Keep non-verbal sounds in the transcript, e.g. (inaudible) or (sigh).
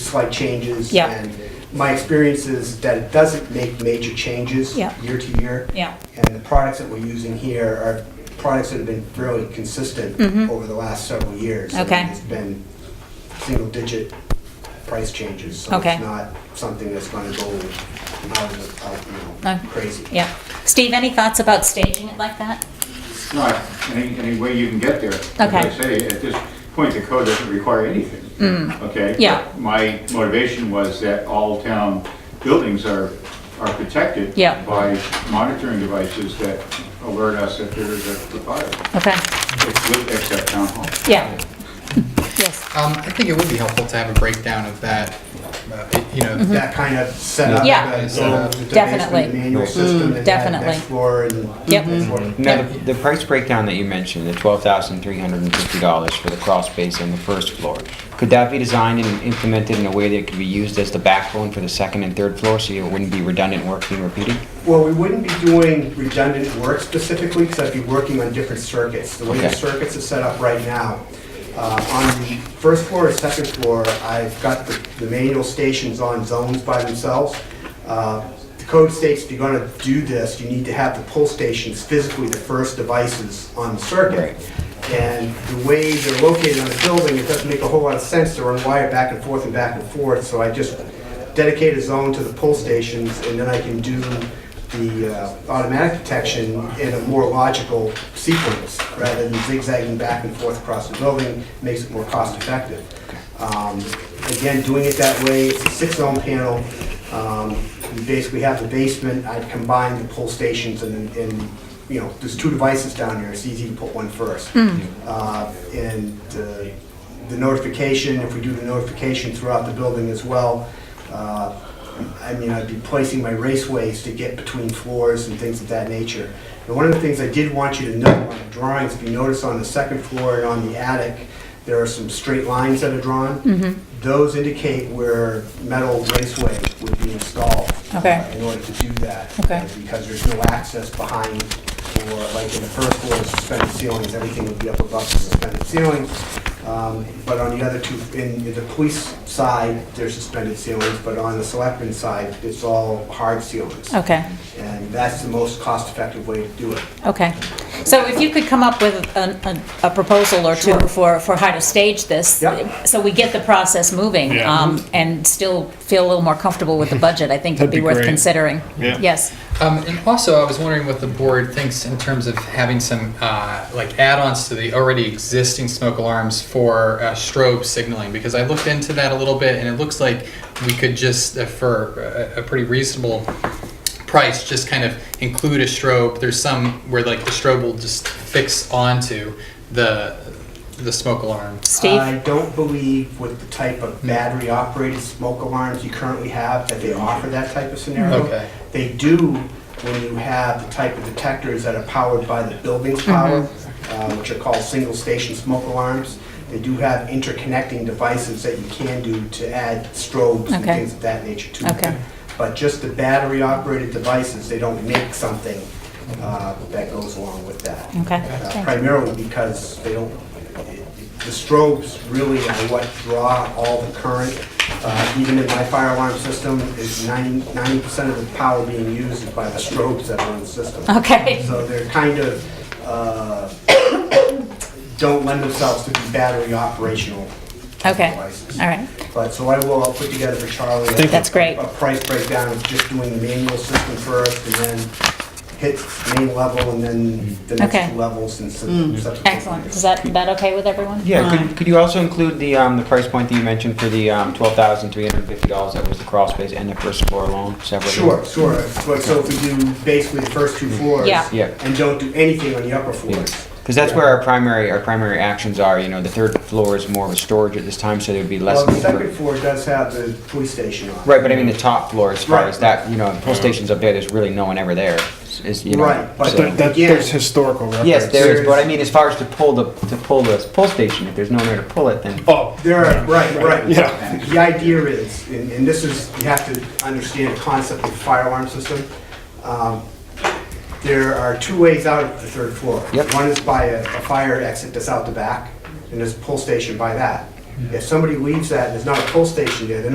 slight changes. Yeah. And my experience is that it doesn't make major changes Yeah. year to year. Yeah. And the products that we're using here are products that have been fairly consistent Mhm. over the last several years. I mean, Okay. It's been single-digit price changes. So Okay. it's not something that's going to go out of, the- out, No. you know, crazy. Uh, Yeah. Steve, any thoughts about staging it like that? not any, any way you can get there. As Okay. I say, at this point, the code doesn't require anything, okay? Mm. Yeah. My motivation was that all town buildings are, are protected Yeah. by monitoring devices that alert us if there is a fire, Okay. with- except town hall. Yeah. Yes. Um, I think it would be helpful to have a breakdown of that, uh, you know, that That kind of setup. Mm-hmm. Yeah. the- Yeah. the basement Definitely. Mm-hmm. Manual system and that definitely. next floor and. Yep. Mm-hmm. and sort of- Now, the, the price breakdown that you mentioned, the twelve thousand three hundred and fifty dollars for the crawl space on the first floor, could that be designed and implemented in a way that could be used as the backbone for the second and third floor, so it wouldn't be redundant work being repeated? Well, we wouldn't be doing redundant work specifically, because I'd be working on different circuits. The way the Okay. circuits are set up right now, uh, on the first floor and second floor, I've got the the manual stations on zones by themselves. Uh, The code states if you're going to do this, you need to have the pull stations physically the first devices on the circuit. And the way they're located on the building, it doesn't make a whole lot of sense to run wire back and forth and back and forth, so I just dedicate a zone to the pull stations, and then I can do the uh, automatic detection in a more logical sequence, rather than zigzagging back and forth across the building, makes it more cost-effective. Um, Again, doing it that way, it's a six-zone panel, um, you basically have the basement, I combine the pull stations and, and, you know, there's two devices down here, it's easy to put one first. Uh, And uh, the notification, if we do the notification throughout the building as well, uh, I mean, I'd be placing my raceways to get between floors and things of that nature. And one of the things I did want you to note on the drawings, if you notice on the second floor and on the attic, there are some straight lines that are drawn. Those indicate where metal raceway would be installed. uh, Okay. In order to do that. Okay. Because there's no access behind, or like in the first floor, the suspended ceilings, everything would be up above the suspended ceilings. Um, But on the other two, in in the police side, there's suspended ceilings, but on the selectmen's side, it's all hard ceilings. Okay. And that's the most cost-effective way to do it. Okay. So if you could come up with an- an- a proposal or two Sure. for, for how to stage this, Yep. so we get the process moving Yeah. um, and still feel a little more comfortable (laughs) with the budget, I think would That'd be be worth great. considering. Yeah. Yes. Um, and also, I was wondering what the board thinks in terms of having some uh, like add-ons to the already existing smoke alarms for uh, strobe signaling, because I looked into that a little bit, and it looks like we could just, uh, for a, a pretty reasonable price, just kind of include a strobe. There's some where like the strobe will just fix onto the the smoke alarm. I Steve? don't believe with the type of battery-operated smoke alarms you currently have, that they offer that type of scenario. Okay. They do when you have the type of detectors that are powered by the building's power, Mm-hmm. uh, which are called single-station smoke alarms. They do have interconnecting devices that you can do to add strobes and Okay. things of that nature to it. Okay. But just the battery-operated devices, they don't make something uh, that goes along with that Okay. uh, primarily because they don't, the strobes really are what draw all the current. Uh, Even in my fire alarm system, is 90, percent of the power being used is by the strobes that are in the system. Okay. So they're kind of, uh, (coughs) don't lend themselves to be battery operational Okay. devices. All right. But, so I will, I'll put together for Charlie. a- That's great. A price breakdown of just doing the manual system first and then hit main level and then the Okay. Mm. next two levels and sub- subsequent. Excellent. Is that, that okay with everyone? Yeah, could, could you also include the, um, the price point that you mentioned for the, um, twelve thousand three hundred and fifty dollars, that was the crawl space and the first floor alone, separately? Sure, sure. But so if we do basically the first two floors. Yeah. Yeah. And don't do anything on the upper floors. Because that's where our primary, our primary actions are, you know, the third floor is more of a storage at this time, so there'd be less. Well, the need for- second floor does have the police station on it. Right, but I mean the top floor, as far Right. as that, you know, pull stations up there, there's really no one ever there, is, you know. Right, but so- That, that, Again- there's historical records. Yes, there is, There's- but I mean, as far as to pull the, to pull the pull station, if there's nowhere to pull it, then. Oh, There are, right, right. Yeah. The idea is, and and this is, you have to understand the concept of fire alarm system. Um, There are two ways out of the third floor. Yep. One is by a a fire exit that's out the back, and there's a pull station by that. If somebody leaves that and there's not a pull station there, they're